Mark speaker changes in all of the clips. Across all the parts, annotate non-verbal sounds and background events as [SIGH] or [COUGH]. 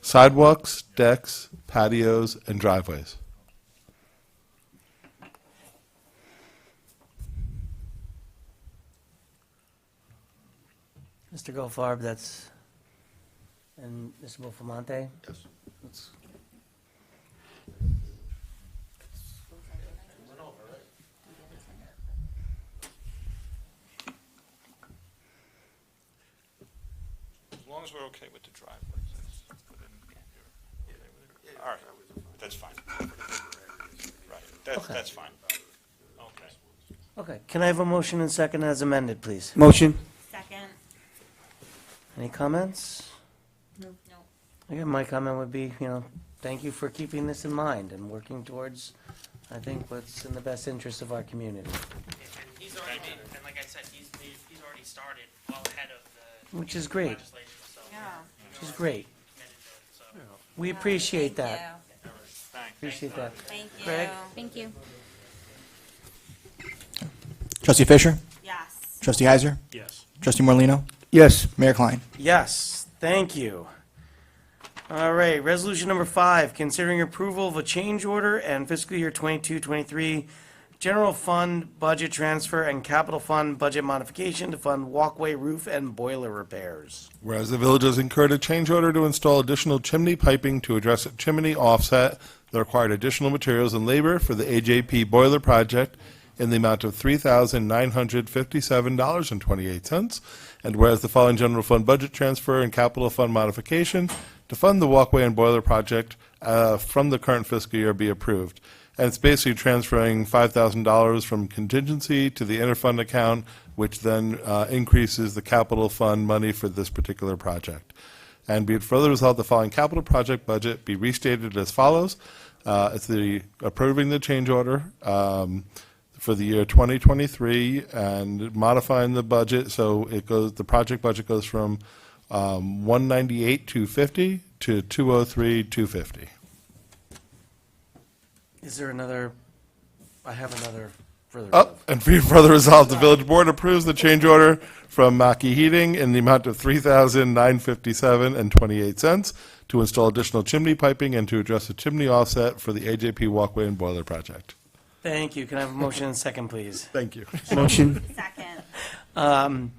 Speaker 1: Sidewalks, decks, patios, and driveways.
Speaker 2: Mr. Goldfarb, that's, and Mr. Bulfamonte?
Speaker 1: Yes.
Speaker 3: As long as we're okay with the driveways, that's within, you're okay with it? All right, that's fine. Right, that's, that's fine. Okay.
Speaker 2: Okay, can I have a motion and second as amended, please?
Speaker 4: Motion?
Speaker 5: Second.
Speaker 2: Any comments?
Speaker 5: No. No.
Speaker 2: Again, my comment would be, you know, thank you for keeping this in mind and working towards, I think, what's in the best interest of our community,
Speaker 6: And he's already made, and like I said, he's made, he's already started well ahead of the
Speaker 2: which is great,
Speaker 6: legislation, so.
Speaker 5: Yeah.
Speaker 2: which is great.
Speaker 6: committed to it, so.
Speaker 2: We appreciate that, appreciate that.
Speaker 5: Thank you.
Speaker 2: Greg?
Speaker 5: Thank
Speaker 7: Thank you.
Speaker 4: Trustee Fisher?
Speaker 5: you. Yes.
Speaker 4: Trustee Heiser? Yes. Trustee Morlino,
Speaker 2: Yes.
Speaker 4: Mayor Klein?
Speaker 2: Yes, thank you. All right, resolution number five, considering approval of a change order and fiscal year 22-23 general fund budget transfer and capital fund budget modification to fund walkway roof and boiler repairs.
Speaker 1: Whereas the village has incurred a change order to install additional chimney piping to address a chimney offset that required additional materials and labor for the AJP boiler project in the amount of $3,957.28. And whereas the following general fund budget transfer and capital fund modification to fund the walkway and boiler project uh, from the current fiscal year be approved. And it's basically transferring $5,000 from contingency to the interfund account, which then uh, increases the capital fund money for this particular project. And be it further resolved, the following capital project budget be restated as follows. Uh, It's the approving the change order um, for the year 2023 and modifying the budget, so it goes, the project budget goes from um, 198,250 to 203,250.
Speaker 2: Is there another, I have another further.
Speaker 1: Up and be further resolved, the village board approves the change order from Mackey Heating in the amount of three thousand nine fifty-seven and twenty-eight cents to install additional chimney piping and to address the chimney offset for the AJP walkway and boiler project.
Speaker 2: Thank you, can I have a motion and second, please?
Speaker 1: Thank you.
Speaker 4: Motion?
Speaker 5: Second.
Speaker 2: Um,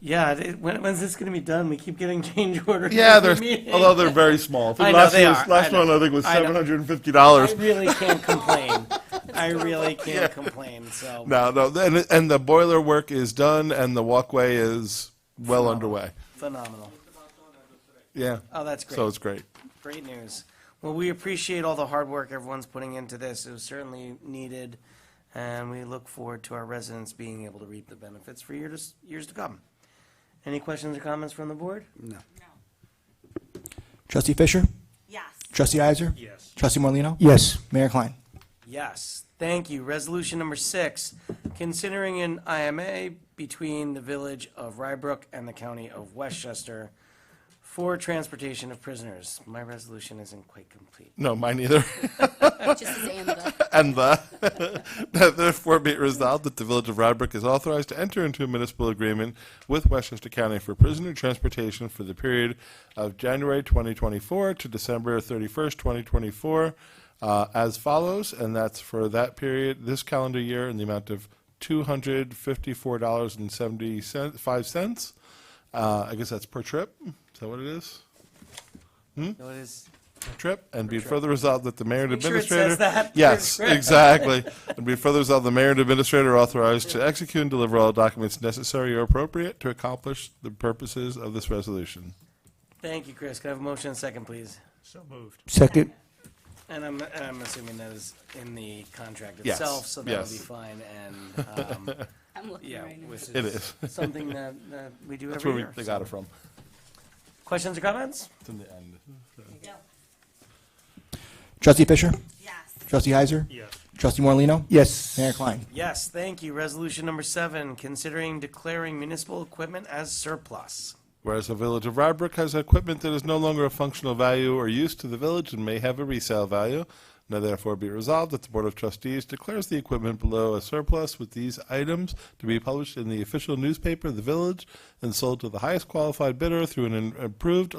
Speaker 2: yeah, it- when, when's this gonna be done? We keep getting [LAUGHS] change
Speaker 1: [LAUGHS]
Speaker 2: orders.
Speaker 1: Yeah,
Speaker 2: every [LAUGHS]
Speaker 1: there's,
Speaker 2: meeting.
Speaker 1: although they're very small.
Speaker 2: I know,
Speaker 1: Last
Speaker 2: they
Speaker 1: year's-
Speaker 2: are. I
Speaker 1: Last
Speaker 2: know.
Speaker 1: one, I think, was
Speaker 2: I know.
Speaker 1: seven hundred and fifty
Speaker 2: I
Speaker 1: dollars.
Speaker 2: really can't complain, I really can't complain, so.
Speaker 1: No, no, and, and the boiler work is done and the walkway is well underway.
Speaker 2: Phenomenal.
Speaker 1: Yeah.
Speaker 2: Oh, that's great.
Speaker 1: So it's great.
Speaker 2: Great news. Well, we appreciate all the hard work everyone's putting into this. It was certainly needed, and we look forward to our residents being able to reap the benefits for years, years to come. Any questions or comments from the board?
Speaker 4: Trustee Fisher?
Speaker 5: Yes.
Speaker 4: Trustee Heiser?
Speaker 6: Yes.
Speaker 4: Trustee Morlino, Yes. Mayor Klein?
Speaker 2: Yes, thank you. Resolution number six, considering an IMA between the Village of Rybrook and the County of Westchester for transportation of prisoners. My resolution isn't quite complete.
Speaker 1: No, mine [LAUGHS] either.
Speaker 7: Just as Amanda.
Speaker 1: [LAUGHS] And the, [LAUGHS] that therefore be it resolved that the Village of Radbrook is authorized to enter into a municipal agreement with Westchester County for prisoner transportation for the period of January 2024 to December 31st, 2024, uh, as follows, and that's for that period, this calendar year, in the amount of $254.75. Uh, I guess that's per trip. Is that what it is? Hmm?
Speaker 2: No, it is,
Speaker 1: trip, and be further resolved that the mayor and
Speaker 2: Make sure it
Speaker 1: administrator.
Speaker 2: says that.
Speaker 1: Yes,
Speaker 2: Trip. [LAUGHS]
Speaker 1: exactly. And be further resolved, the mayor and administrator are authorized to execute and deliver all documents necessary or appropriate to accomplish the purposes of this resolution.
Speaker 2: thank you, Chris. Can I have a motion and a second, please?
Speaker 4: Second.
Speaker 2: And I'm, and I'm assuming that is in the contract
Speaker 1: Yes,
Speaker 2: itself, so that'll be
Speaker 1: yes.
Speaker 2: fine, and, um,
Speaker 1: [LAUGHS]
Speaker 7: I'm looking
Speaker 2: yeah,
Speaker 7: right now.
Speaker 2: which
Speaker 1: It
Speaker 2: is
Speaker 1: is. [LAUGHS]
Speaker 2: something that, that we do
Speaker 1: That's
Speaker 2: every
Speaker 1: where we,
Speaker 2: year.
Speaker 1: they got it from.
Speaker 2: Questions or comments?
Speaker 1: It's in the end.
Speaker 5: No.
Speaker 4: Trustee Fisher?
Speaker 5: Yes.
Speaker 4: Trustee Heiser? Yes. Trustee Morlino, Yes. Mayor Klein?
Speaker 2: Yes, thank you. Resolution number seven, considering declaring municipal equipment as surplus.
Speaker 1: Whereas the village of Rybrook has equipment that is no longer of functional value or use to the village and may have a resale value, now therefore be resolved that the Board of Trustees declares the equipment below a surplus with these items to be published in the official newspaper of the village and sold to the highest qualified bidder through an approved